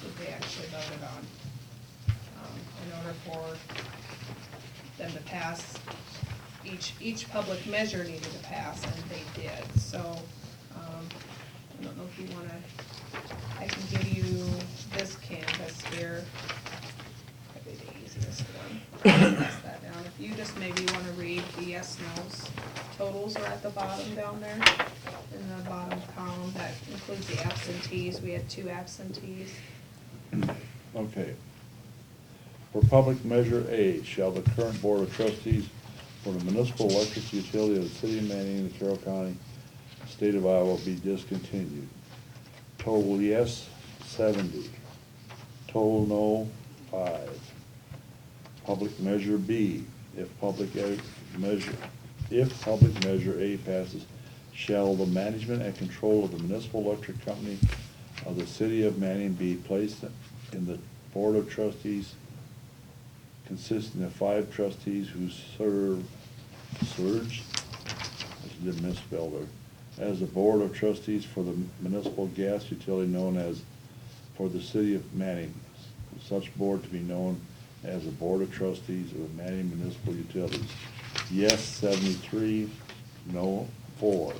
um, order for them to pass, each, each public measure needed to pass, and they did, so, um, I don't know if you wanna, I can give you this canvas here. Probably the easiest one. Pass that down. If you just maybe wanna read the yes, nos, totals are at the bottom down there, in the bottom column, that includes the absentees, we had two absentees. Okay. For public measure A, shall the current Board of Trustees for the municipal electric utility of the city of Manning, the Carroll County, state of Iowa be discontinued? Total yes, seventy. Total no, five. Public measure B, if public e- measure, if public measure A passes, shall the management and control of the municipal electric company of the city of Manning be placed in the board of trustees consisting of five trustees who serve, surge, I just misspelled there, as the board of trustees for the municipal gas utility known as, for the city of Manning. Such board to be known as the Board of Trustees of Manning Municipal Utilities. Yes, seventy-three, no, four.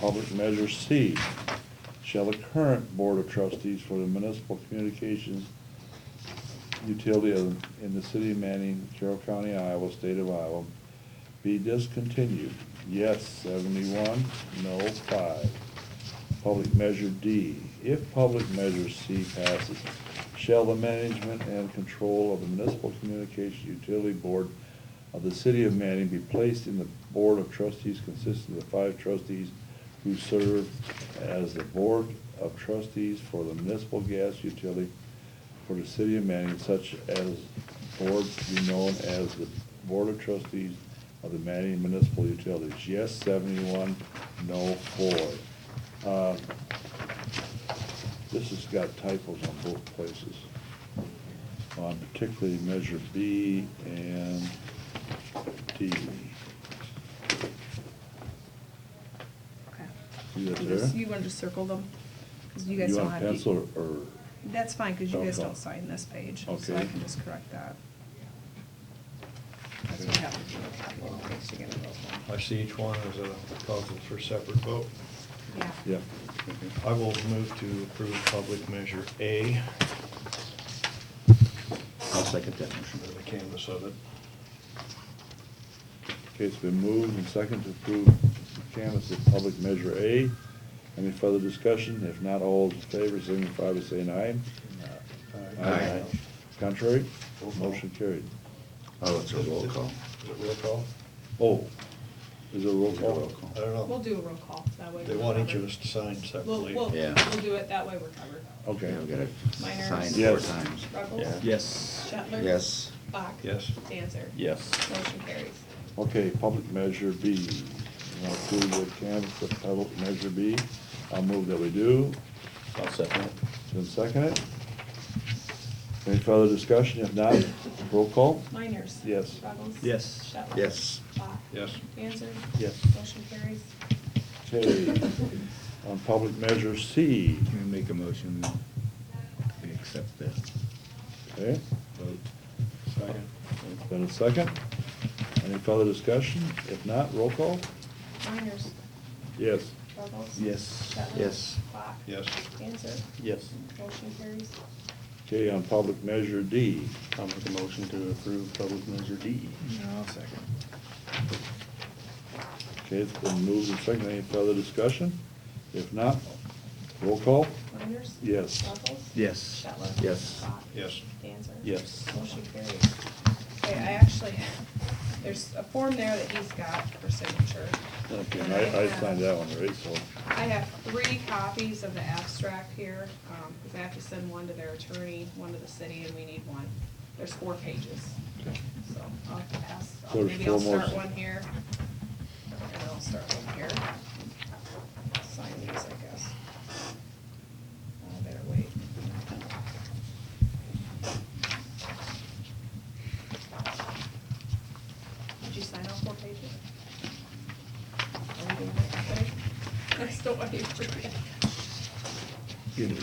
Public measure C, shall the current Board of Trustees for the Municipal Communications Utility of, in the city of Manning, Carroll County, Iowa, state of Iowa, be discontinued? Yes, seventy-one, no, five. Public measure D, if public measure C passes, shall the management and control of the municipal communications utility board of the city of Manning be placed in the board of trustees consisting of the five trustees who serve as the board of trustees for the municipal gas utility for the city of Manning, such as board to be known as the Board of Trustees of the Manning Municipal Utilities. Yes, seventy-one, no, four. Uh, This has got typos on both places, on particularly measure B and D. Okay. See that You just- there? You wanna just circle them? 'Cause you guys You don't want have. pencil or- or, That's fine, because you guys Okay. don't sign this page, so I Okay. can just correct that. That's what happens when you copy and paste, you get a roll call. I see each one as a puzzle for separate vote. Yeah. yeah, I will move to approve public measure A, I'll second that motion. under the canvas of it. Okay, it's been moved and seconded to approve canvas of public measure A. Any further discussion? If not, all those in favor, signify by saying aye. Aye. Contrary? Roll call. Motion carried. Oh, it's a roll call. Is it roll call? Oh, is there a roll Roll call? call. I don't We'll know. do a roll call, that way. They we're want each covered. of us to sign We'll, separately. we'll, we'll Yeah. do it, that way we're covered. Okay. Yeah, we gotta Miners. sign four Yes. times. Ruggles? Yes. Shetler? Yes. Bach? Yes. Dancer? Yes. Motion carries. Okay, public measure B. You want to approve the canvas of public measure B? I'll move that we do. I'll second it. It's been seconded. Any further discussion? If not, roll call? Miners? Yes. Ruggles? Yes. Shetler? Yes. Bach? Yes. Dancer? Yes. Motion carries. Okay. On public measure C, Can we make a motion that we accept that okay? vote? Second. Been a second. Any further discussion? If not, roll call? Miners? Yes. Ruggles? Yes. Shetler? Yes. Bach? Yes. Dancer? Yes. Motion carries. Okay, on public measure D, I'll make a motion to approve public measure D. I'll second. okay, it's been moved and seconded. Any further discussion? If not, roll call? Miners? Yes. Ruggles? Yes. Shetler? Yes. Bach? Yes. Dancer? Yes. Motion carries. Okay, I actually, there's a form there that he's got for signature. Okay, and I, I signed that one, right, so, I have three copies of the abstract here, um, because I have to send one to their attorney, one to the city, and we need one. There's four pages, so I'll have to pass, I'll- There's maybe I'll four more. start one here. And I'll start one here. Sign these, I guess. I better wait. Did you sign all four pages? Are we doing that today? I still want you to read